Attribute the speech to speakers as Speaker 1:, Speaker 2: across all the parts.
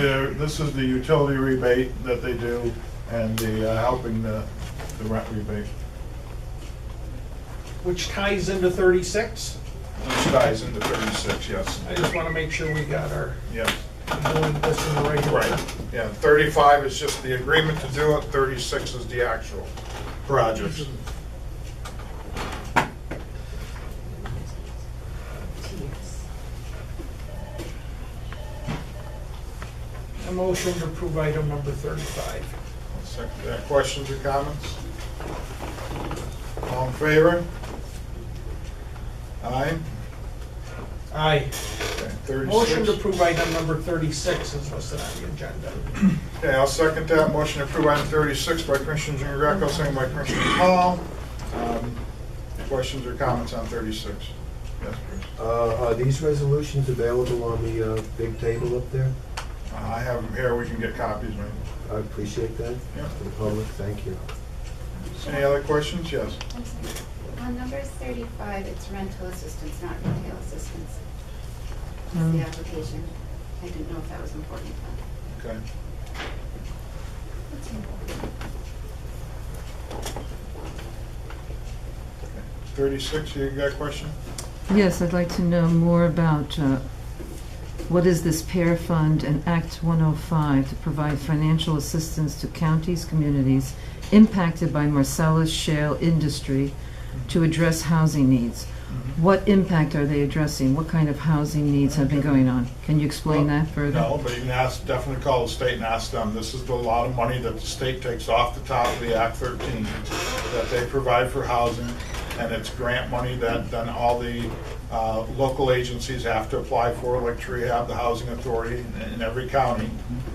Speaker 1: the, this is the utility rebate that they do and the uh, helping the, the rent rebate.
Speaker 2: which ties into thirty-six.
Speaker 1: This guy's in the thirty-six, yes.
Speaker 2: I just wanna make sure we got our,
Speaker 1: Yeah,
Speaker 2: doing this in the right way.
Speaker 1: right. Yeah, thirty-five is just the agreement to do it, thirty-six is the actual project.
Speaker 2: A motion to approve item number thirty-five.
Speaker 1: Second, uh, Questions or comments? All in favor? Aye?
Speaker 2: Aye.
Speaker 1: Okay,
Speaker 2: Motion to
Speaker 1: 36.
Speaker 2: approve item number thirty-six is listed on the agenda.
Speaker 1: Okay, I'll second that. Motion to approve item 36 by Commissioner Jean Greco, second by Commissioner Hall. Um, Questions or comments on 36? Yes, please.
Speaker 3: Uh, Are these resolutions available on the uh, big table up there?
Speaker 1: Uh, I have them here, we can get copies, maybe.
Speaker 3: I appreciate that.
Speaker 1: Yeah.
Speaker 3: For the public, thank you.
Speaker 1: Any other questions? Yes.
Speaker 4: I'm sorry. On number thirty-five, it's rental assistance, not retail assistance. That's the application. I didn't know if that was important.
Speaker 1: Okay.
Speaker 4: It's
Speaker 1: 36, you got a question?
Speaker 5: Yes, I'd like to know more about uh, what is this pair fund and Act 105 to provide financial assistance to counties, communities impacted by Marcellus shale industry to address housing needs. What impact are they addressing? What kind of housing needs have been going on? Can you explain that further?
Speaker 1: No, but you can ask, definitely call the state and ask them. This is the lot of money that the state takes off the top of the Act 13 that they provide for housing, and it's grant money that then all the uh, local agencies have to apply for, like Treehab, the Housing Authority, in- in every county,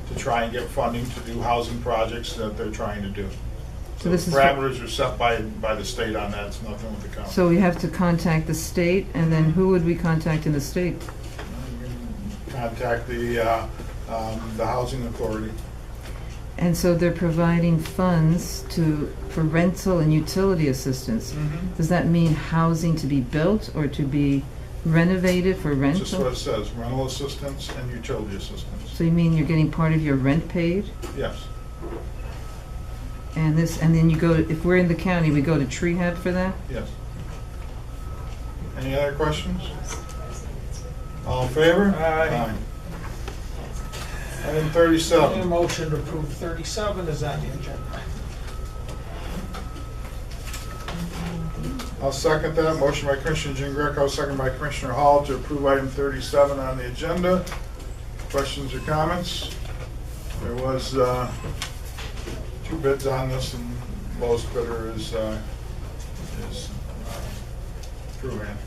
Speaker 1: to try and get funding to do housing projects that they're trying to do.
Speaker 5: So this is for-
Speaker 1: Parameters are set by, by the state on that, it's nothing with the county.
Speaker 5: So we have to contact the state, and then who would we contact in the state?
Speaker 1: Contact the, uh, um, the Housing Authority.
Speaker 5: And so they're providing funds to, for rental and utility assistance. Does that mean housing to be built or to be renovated for
Speaker 1: Just what
Speaker 5: rental?
Speaker 1: it says, rental assistance and utility assistance,
Speaker 5: So you mean you're getting part of your rent paid?
Speaker 1: yes.
Speaker 5: And this, and then you go, to- if we're in the county, we go to Treehab for that?
Speaker 1: Yes. Any other questions? All in favor?
Speaker 2: Aye.
Speaker 1: Aye. Item
Speaker 2: A
Speaker 1: thirty-seven,
Speaker 2: motion to approve thirty-seven is on the agenda.
Speaker 1: I'll second that. Motion by Commissioner Jean Greco, second by Commissioner Hall to approve item thirty-seven on the agenda. Questions or comments? There was, uh, two bids on this and lowest bidder is, uh, is, uh, Truand.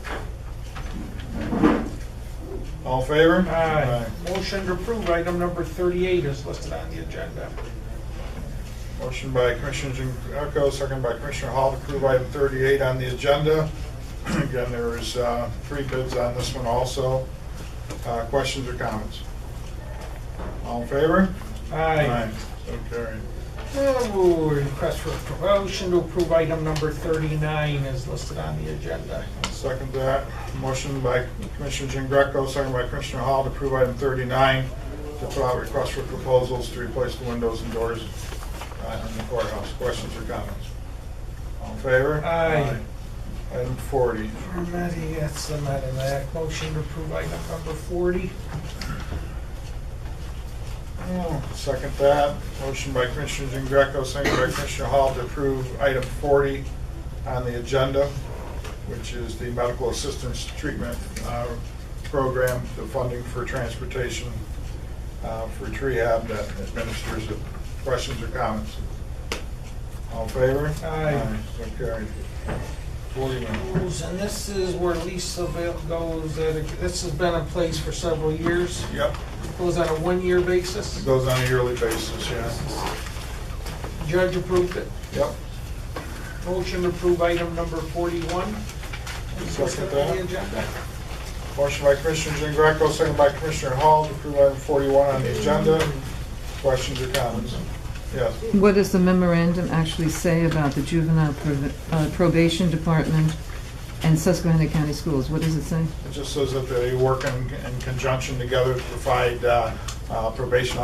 Speaker 1: All in favor?
Speaker 2: Aye. Motion to approve item number thirty-eight is listed on the agenda.
Speaker 1: Motion by Commissioner Jean Greco, second by Commissioner Hall to approve item 38 on the agenda. Again, there is uh, three bids on this one also. Uh, Questions or comments? All in favor?
Speaker 2: Aye.
Speaker 1: So carried.
Speaker 2: Oh, Request for promotion to approve item number thirty-nine is listed on the agenda.
Speaker 1: Second that, motion by Commissioner Jean Greco, second by Commissioner Hall to approve item 39 to put out requests for proposals to replace the windows and doors uh, in the courthouse. Questions or comments? All in favor?
Speaker 2: Aye.
Speaker 1: Aye. Item 40,
Speaker 2: Formatting, that's the matter, that motion to approve item number forty.
Speaker 1: Oh, Second that. Motion by Commissioner Jean Greco, second by Commissioner Hall to approve item 40 on the agenda, which is the medical assistance treatment uh, program, the funding for transportation uh, for rehab that administers it. Questions or comments? All in favor?
Speaker 2: Aye.
Speaker 1: So carried. 41.
Speaker 2: Rules, And this is where Lisa Vale goes, uh, this has been in place for several years,
Speaker 1: Yep,
Speaker 2: goes on a one-year basis.
Speaker 1: it goes on a yearly basis, yeah.
Speaker 2: Judge approved it.
Speaker 1: Yep.
Speaker 2: Motion to approve item number forty-one is listed on the agenda.
Speaker 1: Motion by Commissioner Jean Greco, second by Commissioner Hall to approve item 41 on the agenda. Questions or comments? Yes.
Speaker 5: What does the memorandum actually say about the juvenile provi- uh, probation department and Susquehanna County Schools? What does it say?
Speaker 1: It just says that they work in in conjunction together to provide uh, uh, probation